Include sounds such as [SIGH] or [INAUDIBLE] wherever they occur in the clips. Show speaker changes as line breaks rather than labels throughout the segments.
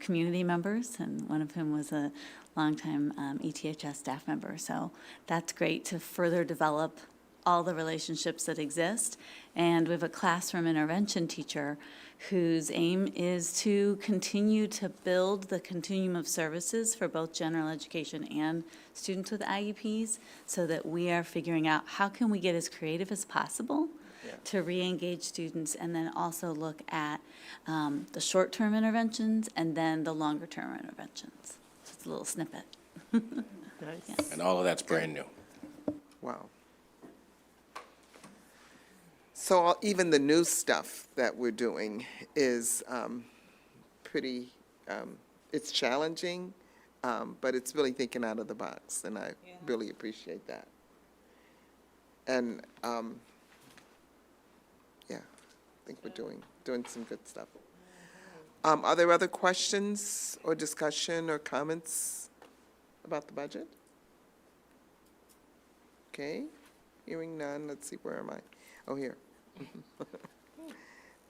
community members, and one of whom was a longtime um, ETHS staff member. So that's great to further develop all the relationships that exist. And we have a classroom intervention teacher whose aim is to continue to build the continuum of services for both general education and students with IEPs so that we are figuring out how can we get as creative as possible to re-engage students and then also look at um, the short-term interventions and then the longer-term interventions. Just a little snippet.
Nice.
And all of that's brand new.
Wow. So all- even the new stuff that we're doing is um, pretty, um, it's challenging, um, but it's really thinking out of the box, and I really appreciate that. And, um, yeah, I think we're doing, doing some good stuff. Um, Are there other questions or discussion or comments about the budget? Okay, hearing none, let's see, where am I? Oh, here.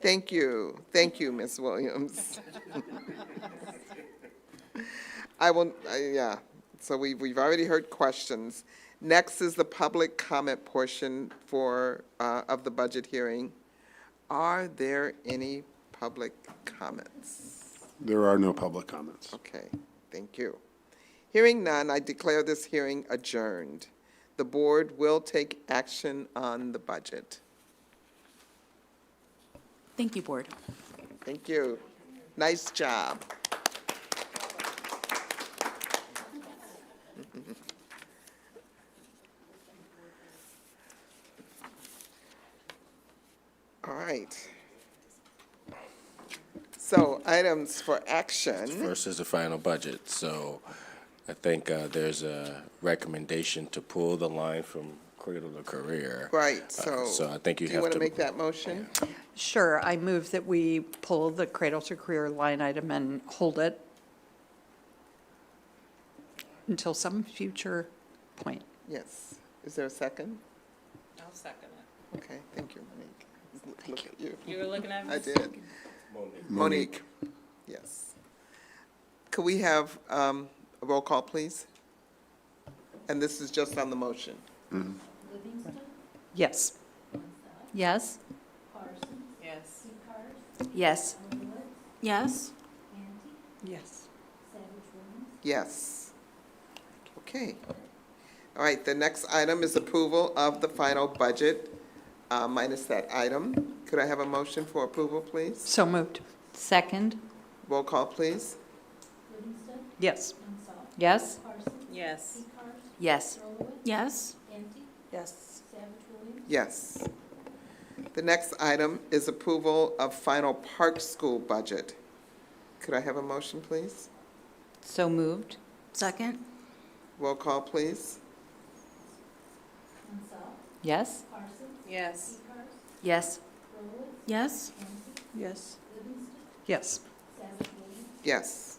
Thank you, thank you, Ms. Williams. [LAUGHS] I will, I- yeah, so we, we've already heard questions. Next is the public comment portion for, uh, of the budget hearing. Are there any public comments?
There are no public comments.
Okay, thank you. Hearing none, I declare this hearing adjourned. The board will take action on the budget.
Thank you, Board.
Thank you. Nice job. All right. So items for action.
First is the final budget, so I think uh, there's a recommendation to pull the line from cradle to career.
Right,
Uh,
so.
So I think you
Do you
have
want to make
to,
that motion?
Sure, I move that we pull the Cradle to Career line item and hold it until some future point.
Yes. Is there a second? I'll second it. Okay, thank you, Monique. Thank you. You were looking at me? I did. Monique, yes. Could we have um, a roll call, please? And this is just on the motion.
Yes.
Yes? Yes. Yes. Yes?
Yes.
Yes. Okay. All right, the next item is approval of the final budget uh, minus that item. Could I have a motion for approval, please?
So moved.
Second?
Roll call, please.
Yes.
Yes?
Yes.
Yes. Yes?
Yes.
Yes. The next item is approval of final park school budget. Could I have a motion, please?
So moved? Second?
Roll call, please.
Yes? Yes. Yes? Yes?
Yes. Yes.
Yes.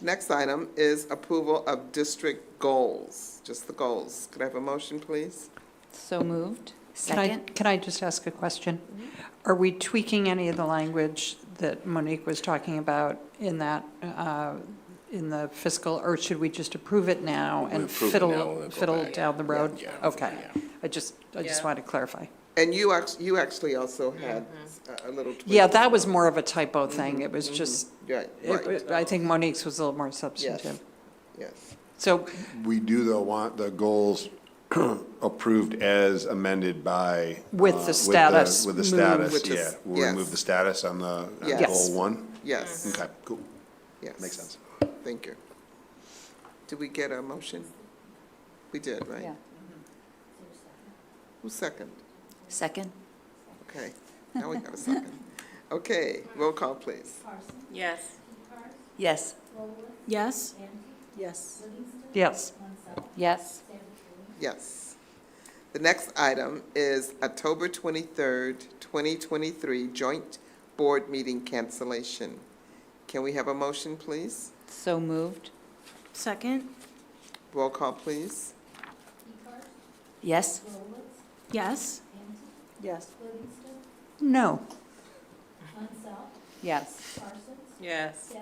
Next item is approval of district goals, just the goals. Could I have a motion, please?
So moved?
Can I,
Second? Mm-hmm.
can I just ask a question? Are we tweaking any of the language that Monique was talking about in that, uh, in the fiscal, or should we just approve it now
We
and
approve it now and
fiddle,
then go
fiddle
back.
down the road?
Yeah.
Okay.
Yeah.
I just, I just wanted to clarify.
And you act, you actually also had uh, a a little tweak.
Yeah, that was more of a typo
Mm-hmm.
thing. It was just,
Right,
it-
right.
it- I think Monique's was a little more
Yes,
substantive.
yes.
So,
We do though want the goals [CLEARS THROAT] approved as amended by.
With the
uh,
status
With the
moved.
status,
With the
yeah.
s-
We'll remove
yes.
the status on the, on
Yes.
goal one?
Yes,
Okay, cool.
yes.
Makes sense.
Thank you. Did we get a motion? We did, right?
Yeah.
Who's second?
Second?
Okay, now we got a second. Okay, roll call, please.
Yes. Yes?
yes,
Yes?
Yes. The next item is October twenty-third, twenty twenty-three, joint board meeting cancellation. Can we have a motion, please?
So moved? Second?
Roll call, please.
Yes? Yes?
no,
Yes.
Yes.